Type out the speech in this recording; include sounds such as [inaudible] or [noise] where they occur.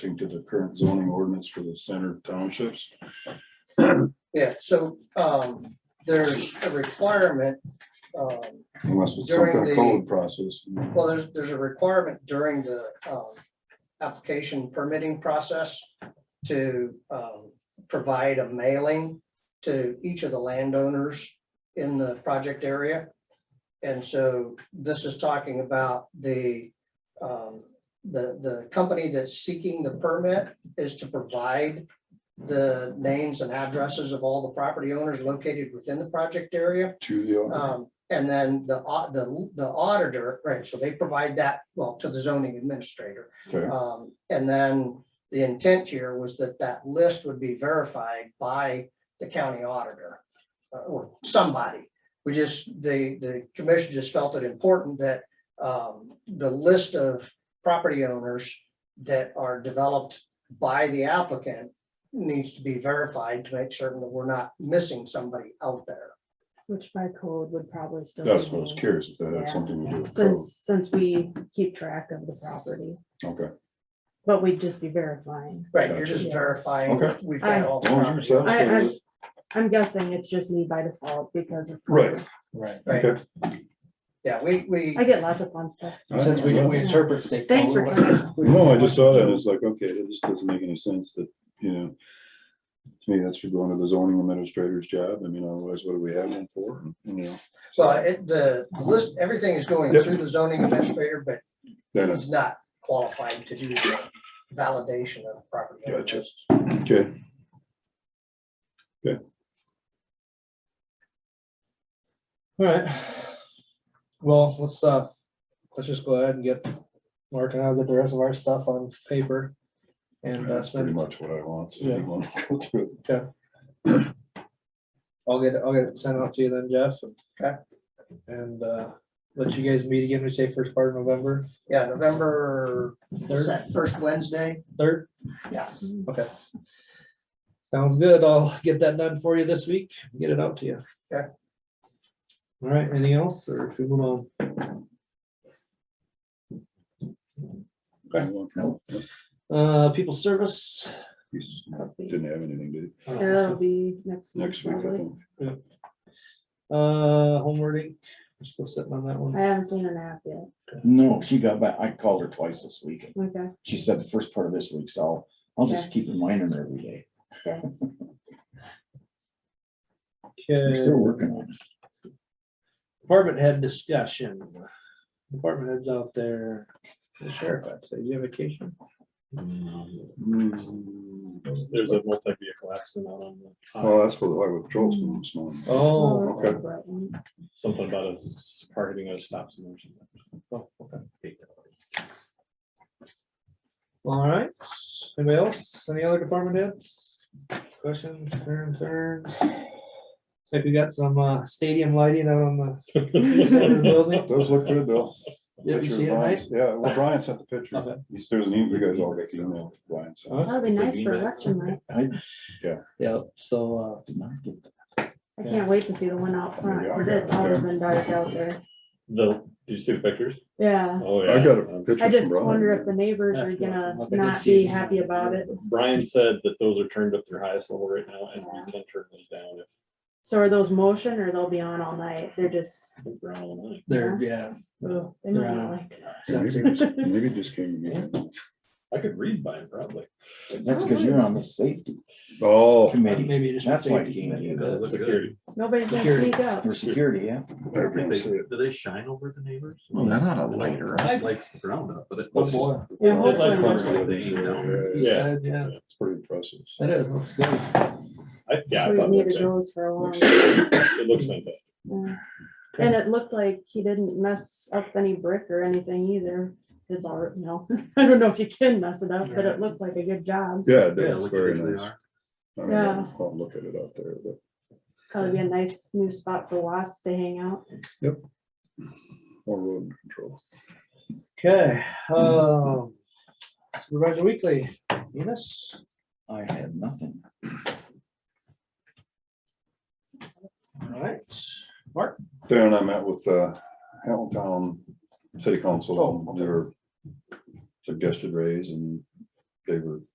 thing to the current zoning ordinance for the center townships. Yeah, so, um, there's a requirement, um, Unless it's some kind During the- of code process. well, there's, there's a requirement during the, um, application permitting process to, um, provide a mailing to each of the landowners in the project area. And so this is talking about the, um, the, the company that's seeking the permit is to provide the names and addresses of all the property owners located within the project area. To the, Um, and then the, au- the, the auditor, right, so they provide that, well, to the zoning administrator. okay, Um, and then the intent here was that that list would be verified by the county auditor uh, or somebody. We just, the, the commission just felt it important that, um, the list of property owners that are developed by the applicant needs to be verified to make certain that we're not missing somebody out there. Which by code would probably still. that's be what I was named. curious, if that had Yeah, something to do with code, Since, since we keep track of the property, okay. but we'd just be verifying. Right, you're Gotcha. just Yeah. verifying Okay. we've got all the As long as you're property. satisfied I, with I'm, it. I'm guessing it's just me by default because of. Right. code. Right, Right, Okay. yeah, we, we, I get lots of fun stuff. since we, we interpret state. Thanks code, for what- coming. we- No, I just saw that, it's like, okay, it just doesn't make any sense that, you know. To me, that should go under the zoning administrator's job, I mean, otherwise, what do we have them for, you know? so it, the the list, everything is going Yep. through the zoning administrator, but Then it's- he's not qualified to do the validation of the property. owner Gotcha. list. Okay. All right. Well, let's, uh, let's just go ahead and get, Mark and I'll get the rest of our stuff on paper. And uh, That's pretty send, much what I want. so Yeah. you want to go through it. I'll get, I'll get it sent out to you then, Jeff. and- Okay. And, uh, let you guys meet again, we say first part of November, Yeah, November, is third, that first Wednesday? third, Mm. okay. Sounds good. I'll get that done for you this week, get it out to you. Okay. All right, anything else or should we move on? No, Uh, people service, he's- Didn't have anything, did uh, It'll be next. he? Next week, I probably. think. uh, homeward ink, we're still sitting on that one. I haven't seen an app yet. No, she got back, I called her twice this week, Okay, she said the first part of this week, so I'll just keep reminding her every day, I'm Okay, still working on it. department head discussion. Department heads out there. The Sheriff, I'd say, do you have a vacation? There's a multi-vehicle accident out on, the Well, highway. that's what the highway patrol's doing this morning. Um, Oh, well, that's okay. the right one. something about us targeting a stop sign or oh, okay. something. All right, anybody else? Any other department heads? Questions, concerns? Like we got some uh, stadium lighting out on [laughs] the center of the building. Does look good, though. Yeah, you Picture of see it, Brian- right? Yeah, well, Brian sent the picture. Okay. He still doesn't, you guys all got the email, Brian sent. Huh? That'd be nice for email. election night. I Yeah, so, uh, did not get that. I Yeah. can't wait to see the one out front, Yeah, I because got it's it, always yeah. been dark out there. The, did you see the pictures? Yeah, Oh, yeah. I got a picture I from just Brian. wonder if the neighbors are gonna not be happy about it. Brian said that those are turned up to their highest level right now and we can turn those down if So are those motion or they'll be on all night? They're just, we're on all night. there, yeah. oh, they might not like. Maybe [laughs] just- Maybe just came. again. I could read by it probably. That's because you're on the safety Oh, committee Maybe just. That's why it safety came committee, in. but- Security. Nobody's gonna Security. sneak up. for security, yeah. never gonna see it. they shine over the neighbors? Oh, Well, they're not a light, right? Lights the ground up, but it. Oh, boy. Yeah, I'd like to- hopefully, Yeah, Yeah. Yeah, It's pretty impressive. it is, looks good. I- Yeah, I we've thought it needed looked- those for a while. it looks fantastic. Yeah. And it looked like he didn't mess up any brick or anything either. It's all, you know, [laughs] I don't know if you can mess it up, but it looked like a good job. Yeah, it did. It's very nice. I mean, Yeah. I'll look at it out there, but Probably be a nice new spot for wasps to hang out. more rodent control. Okay, um, Supervisor Weekly, Enos? I had nothing. Alright, Mark? Darren and I met with uh, Hamilton Town City Council, Oh, on their suggested raise and they were